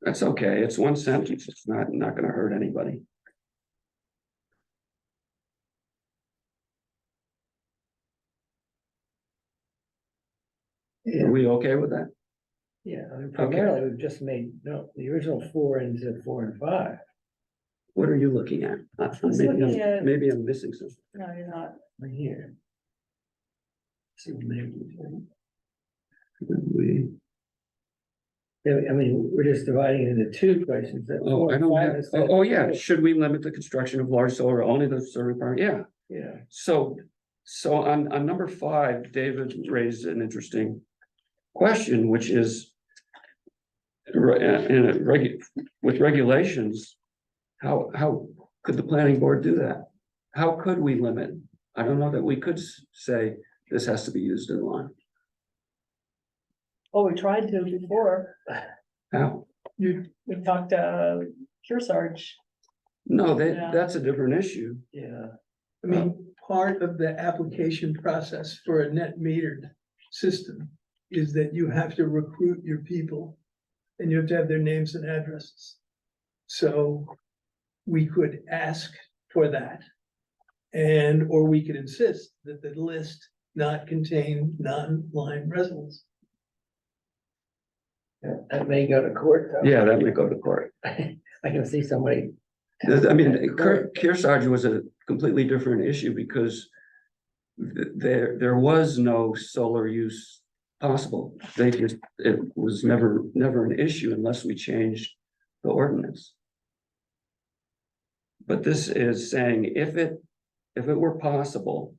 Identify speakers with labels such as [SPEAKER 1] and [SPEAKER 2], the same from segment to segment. [SPEAKER 1] That's okay. It's one sentence. It's not, not gonna hurt anybody. Are we okay with that?
[SPEAKER 2] Yeah, I mean, primarily, we've just made, no, the original four into four and five.
[SPEAKER 1] What are you looking at? Uh,
[SPEAKER 3] was
[SPEAKER 1] Maybe,
[SPEAKER 3] looking
[SPEAKER 1] I'm-
[SPEAKER 3] at-
[SPEAKER 1] maybe I'm missing something.
[SPEAKER 3] No, you're not.
[SPEAKER 2] Right here. uh, See what they-
[SPEAKER 1] We,
[SPEAKER 2] Yeah, I mean, we're just dividing into two questions. that
[SPEAKER 1] oh,
[SPEAKER 2] four
[SPEAKER 1] I
[SPEAKER 2] and
[SPEAKER 1] don't
[SPEAKER 2] five
[SPEAKER 1] have,
[SPEAKER 2] instead
[SPEAKER 1] oh,
[SPEAKER 2] of
[SPEAKER 1] oh, yeah,
[SPEAKER 2] two.
[SPEAKER 1] should we limit the construction of large solar only the serving part? Yeah.
[SPEAKER 2] Yeah,
[SPEAKER 1] So, so on, on number five, David raised an interesting question, which is. Right, in a regu- with regulations, how, how could the planning board do that? How could we limit? I don't know that we could s- say this has to be used in line.
[SPEAKER 3] Oh, we tried to before.
[SPEAKER 1] How?
[SPEAKER 3] You, we talked to uh, Kearsarge.
[SPEAKER 1] No, that,
[SPEAKER 3] Yeah.
[SPEAKER 1] that's a different issue.
[SPEAKER 2] yeah.
[SPEAKER 4] I mean, part of the application process for a net metered system is that you have to recruit your people and you have to have their names and addresses. So we could ask for that. And, or we could insist that the list not contain non-line residents.
[SPEAKER 2] That- That may go to court, though.
[SPEAKER 1] Yeah, that may go to court.
[SPEAKER 2] I can see somebody.
[SPEAKER 1] I mean, Kear- Kearsarge was a completely different issue because th- there, there was no solar use possible. They just, it was never, never an issue unless we changed the ordinance. But this is saying if it, if it were possible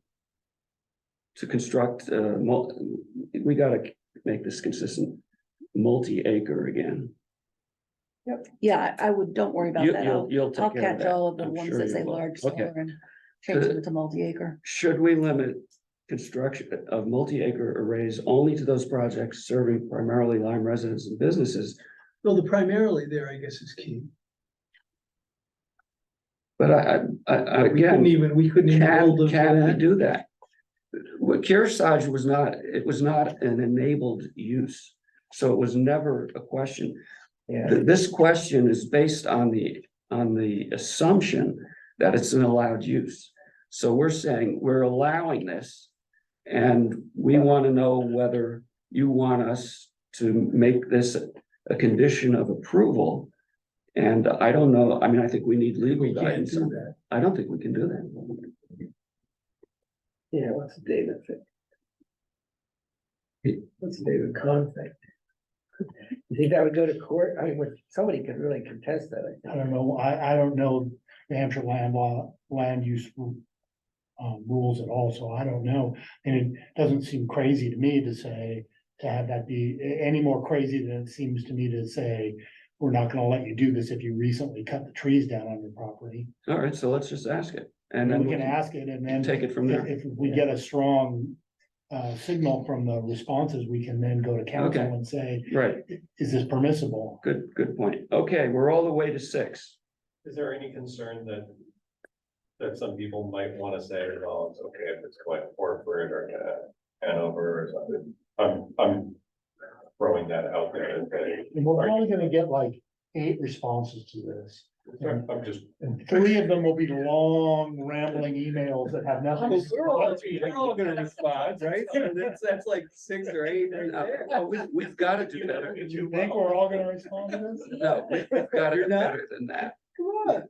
[SPEAKER 1] to construct, uh, mul- we gotta make this consistent, multi-acre again.
[SPEAKER 5] Yeah, I I would, don't worry about
[SPEAKER 1] You-
[SPEAKER 5] that.
[SPEAKER 1] you'll-
[SPEAKER 5] I'll,
[SPEAKER 1] you'll take
[SPEAKER 5] I'll
[SPEAKER 1] care of
[SPEAKER 5] catch
[SPEAKER 1] that.
[SPEAKER 5] all of the
[SPEAKER 1] I'm
[SPEAKER 5] ones
[SPEAKER 1] sure
[SPEAKER 5] that
[SPEAKER 1] you
[SPEAKER 5] say
[SPEAKER 1] will.
[SPEAKER 5] large
[SPEAKER 1] Okay.
[SPEAKER 5] solar and change them to multi-acre.
[SPEAKER 1] Should we limit construction uh, of multi-acre arrays only to those projects serving primarily Lyme residents and businesses?
[SPEAKER 4] Well, the primarily there, I guess, is key.
[SPEAKER 1] But I, I, I,
[SPEAKER 4] We couldn't
[SPEAKER 1] again,
[SPEAKER 4] even, we couldn't even hold
[SPEAKER 1] can,
[SPEAKER 4] them to
[SPEAKER 1] can we
[SPEAKER 4] that.
[SPEAKER 1] do that? What Kearsarge was not, it was not an enabled use, so it was never a question.
[SPEAKER 2] Yeah,
[SPEAKER 1] Th- This question is based on the, on the assumption that it's an allowed use. So we're saying we're allowing this. And we want to know whether you want us to make this a condition of approval. And I don't know, I mean, I think we need legal
[SPEAKER 4] We can't
[SPEAKER 1] guidance.
[SPEAKER 4] do
[SPEAKER 1] on that.
[SPEAKER 4] that.
[SPEAKER 1] I don't think we can do that.
[SPEAKER 2] yeah, what's David? think?
[SPEAKER 1] He-
[SPEAKER 2] What's David Kahn think? You think that would go to court? I mean, what- somebody could really contest that, I
[SPEAKER 6] I
[SPEAKER 2] think.
[SPEAKER 6] don't know, I, I don't know the Hampshire land law, land use. ru- Um, rules at all, so I don't know, and it doesn't seem crazy to me to say, to have that be a- any more crazy than it seems to me to say. We're not gonna let you do this if you recently cut the trees down on your property,
[SPEAKER 1] All right, so let's just ask it. And
[SPEAKER 6] and
[SPEAKER 1] then
[SPEAKER 6] we can ask it and then.
[SPEAKER 1] Take it from
[SPEAKER 6] If
[SPEAKER 1] there.
[SPEAKER 6] if we get a strong uh signal from the responses, we can then go to council
[SPEAKER 1] Okay.
[SPEAKER 6] and say,
[SPEAKER 1] Right,
[SPEAKER 6] is this permissible?
[SPEAKER 1] good, good point. Okay, we're all the way to six.
[SPEAKER 7] Is there any concern that? That some people might wanna say, well, it's okay if it's going corporate or uh, Hanover or something, I'm, I'm. Throwing that out there, and saying,
[SPEAKER 6] And we're only gonna get like eight responses to this.
[SPEAKER 7] I'm I'm just.
[SPEAKER 6] And three of them will be long rambling emails that have nothing.
[SPEAKER 4] Well, We're all, we're all gonna respond, right? So That's, that's like six or eight right there.
[SPEAKER 1] Oh, we, we've got to do better.
[SPEAKER 6] You think we're all gonna respond to this?
[SPEAKER 1] No, we- we've got to do better than that.
[SPEAKER 4] Come on.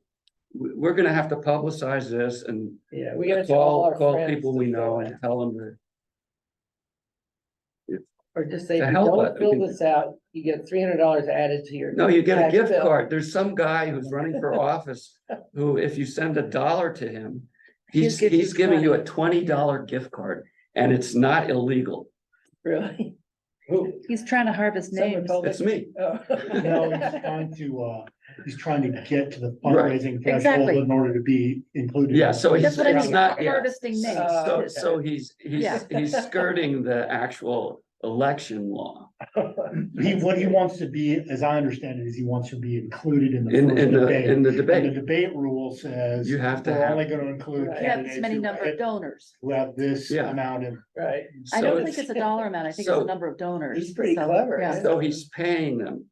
[SPEAKER 1] We- We're gonna have to publicize this and
[SPEAKER 2] Yeah, we gotta tell all
[SPEAKER 1] call,
[SPEAKER 2] our
[SPEAKER 1] call
[SPEAKER 2] friends
[SPEAKER 1] people
[SPEAKER 2] to
[SPEAKER 1] we
[SPEAKER 2] fill
[SPEAKER 1] know
[SPEAKER 2] out.
[SPEAKER 1] and tell them to.
[SPEAKER 2] Or just say,
[SPEAKER 1] To
[SPEAKER 2] if you
[SPEAKER 1] help us,
[SPEAKER 2] don't
[SPEAKER 1] we
[SPEAKER 2] fill
[SPEAKER 1] can-
[SPEAKER 2] this out, you get three hundred dollars added to your.
[SPEAKER 1] No, you get a
[SPEAKER 2] tax
[SPEAKER 1] gift
[SPEAKER 2] bill."
[SPEAKER 1] card. There's some guy who's running for office who, if you send a dollar to him, he's,
[SPEAKER 5] give you
[SPEAKER 1] he's giving you a
[SPEAKER 5] money.
[SPEAKER 1] twenty dollar gift card and it's not illegal.
[SPEAKER 2] Really?
[SPEAKER 5] He's trying to harvest
[SPEAKER 2] Someone
[SPEAKER 5] names.
[SPEAKER 2] told
[SPEAKER 1] It's me.
[SPEAKER 6] No, he's trying to, uh, he's trying to get to the
[SPEAKER 1] Right.
[SPEAKER 6] fundraising
[SPEAKER 5] Exactly.
[SPEAKER 6] threshold in order to be included.
[SPEAKER 1] Yeah, so he's,
[SPEAKER 5] That's what I
[SPEAKER 1] it's
[SPEAKER 5] mean,
[SPEAKER 1] not, yeah.
[SPEAKER 5] harvesting names.
[SPEAKER 2] Uh,
[SPEAKER 1] So, so he's, he's,
[SPEAKER 5] Yeah.
[SPEAKER 1] he's skirting the actual election law.
[SPEAKER 6] He, what he wants to be, as I understand it, is he wants to be included in the.
[SPEAKER 1] In,
[SPEAKER 6] first
[SPEAKER 1] in the,
[SPEAKER 6] debate.
[SPEAKER 1] in the
[SPEAKER 6] And the
[SPEAKER 1] debate,
[SPEAKER 6] debate rule says.
[SPEAKER 1] you have to
[SPEAKER 6] We're
[SPEAKER 1] have.
[SPEAKER 6] only gonna include
[SPEAKER 2] Right.
[SPEAKER 5] You have this
[SPEAKER 6] candidates
[SPEAKER 5] many
[SPEAKER 6] who
[SPEAKER 5] number of
[SPEAKER 6] have-
[SPEAKER 5] donors.
[SPEAKER 6] who have this
[SPEAKER 1] Yeah.
[SPEAKER 6] amount of
[SPEAKER 2] Right,
[SPEAKER 1] so
[SPEAKER 5] I don't think
[SPEAKER 1] it's-
[SPEAKER 5] it's a dollar amount. I think it's
[SPEAKER 1] so-
[SPEAKER 5] a number of donors.
[SPEAKER 2] He's pretty
[SPEAKER 5] So,
[SPEAKER 2] clever,
[SPEAKER 5] yeah.
[SPEAKER 2] isn't
[SPEAKER 1] So he's paying them